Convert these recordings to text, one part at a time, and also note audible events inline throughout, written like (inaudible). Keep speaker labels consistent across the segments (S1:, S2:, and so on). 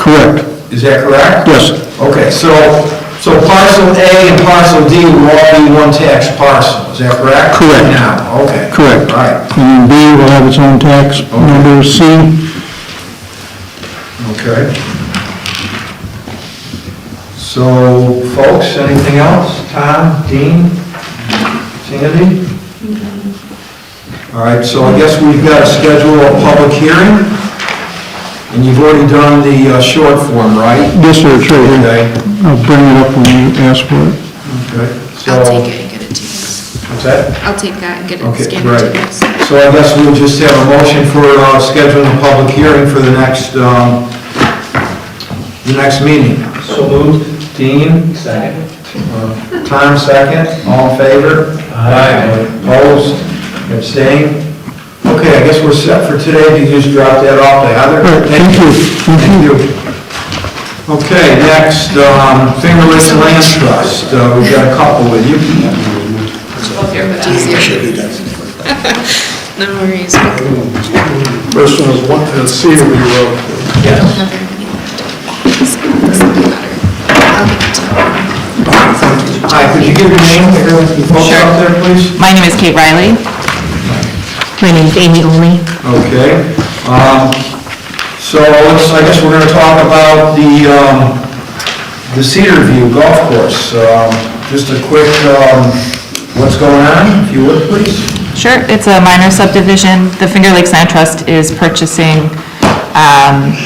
S1: Correct.
S2: Is that correct?
S1: Yes.
S2: Okay, so, so parcel A and parcel D will all be one tax parcel, is that correct?
S1: Correct.
S2: Now, okay.
S1: Correct.
S2: All right,
S1: And then B will have its own tax number, C,
S2: okay. So, folks, anything else? Tom, Dean, Sandy? All right, so I guess we've got to schedule a public hearing, and you've already done the uh, short form, right?
S1: this or it's right here.
S2: Okay,
S1: I'll bring it up when you ask for it.
S2: okay, so,
S3: I'll take it and get it to you guys.
S2: what's that?
S3: I'll take that and get it
S2: Okay,
S3: scanned to you
S2: great.
S3: guys.
S2: So I guess we'll just have a motion for uh, scheduling a public hearing for the next, um, the next meeting. So moved. Dean? Second. Tom, second. All in favor? Aye. Opposed? Abstained? Okay, I guess we're set for today. You just drop that off to Heather.
S1: All right, thank you.
S2: Thank you. Okay, next, um, Finger Lakes Land Trust. Uh, We've got a couple with you.
S3: They're much easier. (laughs) No worries. I don't
S4: First one is one, uh, Cedarview Road.
S2: Yes.
S3: have very many left. This will be better. I'll give it to you.
S2: Hi, could you give your name to the folks out there, please?
S5: My name is Kate Riley. My name's Amy Olney.
S2: Okay. um, So let's, I guess we're going to talk about the, um, the Cedar View Golf Course. Um, Just a quick, um, what's going on, if you would, please?
S5: Sure, it's a minor subdivision. The Finger Lakes Land Trust is purchasing um,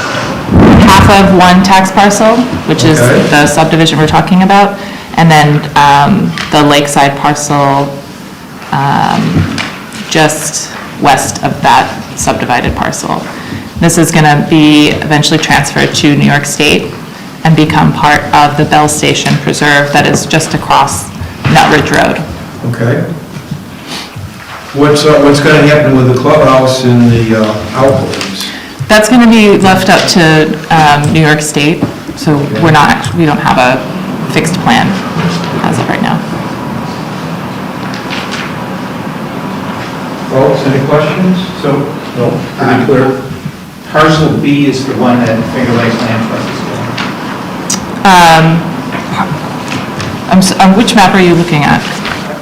S5: half of one tax parcel, which is
S2: Okay.
S5: the subdivision we're talking about, and then um, the lakeside parcel um, just west of that subdivided parcel. This is going to be eventually transferred to New York State and become part of the Bell Station Preserve that is just across Nut Ridge Road.
S2: Okay. What's, uh, what's going to happen with the clubhouse and the uh, outbuildings?
S5: That's going to be left up to um, New York State, so we're not, act- we don't have a fixed plan as of right now.
S2: Folks, any questions?
S6: So, pretty clear. Parcel B is the one that Finger Lakes Land Trust is doing.
S5: Um, I'm s- um, Which map are you looking at?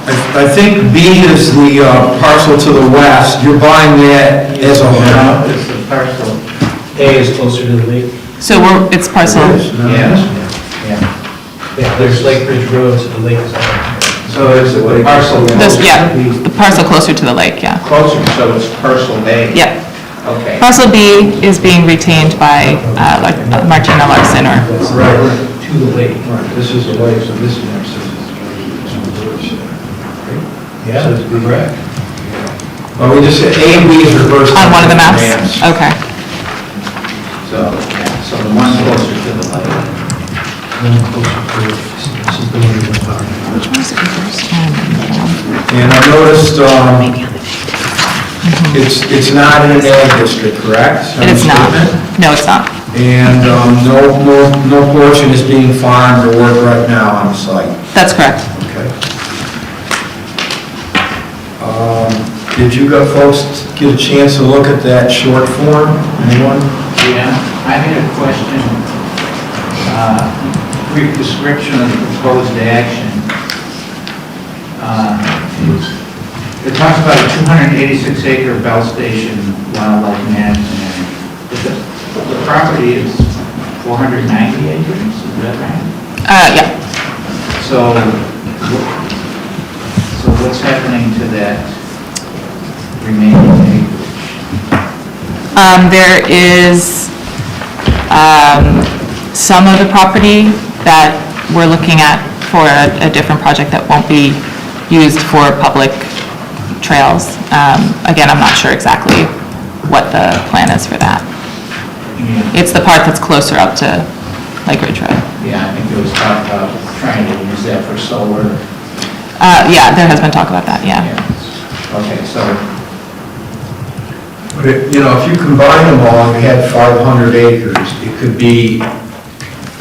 S2: I I think B is the uh, parcel to the west. You're buying that as a whole.
S6: No, It's the parcel, A is closer to the lake.
S5: So we're, it's parcel,
S6: Yeah, yeah. Yeah, there's Lake Ridge Road to the lake. So it's the parcel.
S5: this- yeah, the parcel closer to the lake, yeah.
S6: Closer, so it's parcel A.
S5: Yeah.
S6: Okay.
S5: Parcel B is being retained by uh, Lar- Martina Larson or
S2: Right.
S6: To the lake.
S2: Right, this is the way, so this is next, this is.
S6: Yeah, that's correct.
S2: Well, we just, A and B is reversed.
S5: on one of the maps? Oh. Okay.
S6: So, yeah, so the one closer to the lake.
S2: And I noticed, um, it's, it's not in an ag district, correct?
S5: It is not.
S2: Understatement?
S5: No, it's not.
S2: And, um, no, no, no portion is being farmed or worked right now on the site,
S5: That's correct.
S2: okay? Um, did you got folks get a chance to look at that short form, anyone?
S6: Yeah, I had a question. Uh, Brief description of the proposed action. Uh, It talks about a 286 acre Bell Station wildlife management area. But the- The property is 490 acres, is that right?
S5: Uh, Yeah.
S6: So, wh- so what's happening to that remaining acreage?
S5: Um, There is um, some of the property that we're looking at for a- a different project that won't be used for public trails. Um, Again, I'm not sure exactly what the plan is for that.
S6: You mean,
S5: It's the part that's closer up to Lake Ridge Road.
S6: Yeah, I think it was talked about trying to use that for solar.
S5: Uh, Yeah, there has been talk about that, yeah.
S6: Okay, so,
S2: But, it- you know, if you combine them all, and you had 500 acres, it could be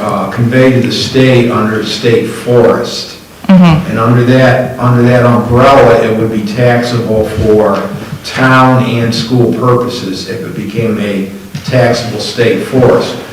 S2: uh, conveyed to the state under state forest.
S5: Mhm.
S2: And under that, under that umbrella, it would be taxable for town and school purposes if it became a taxable state forest.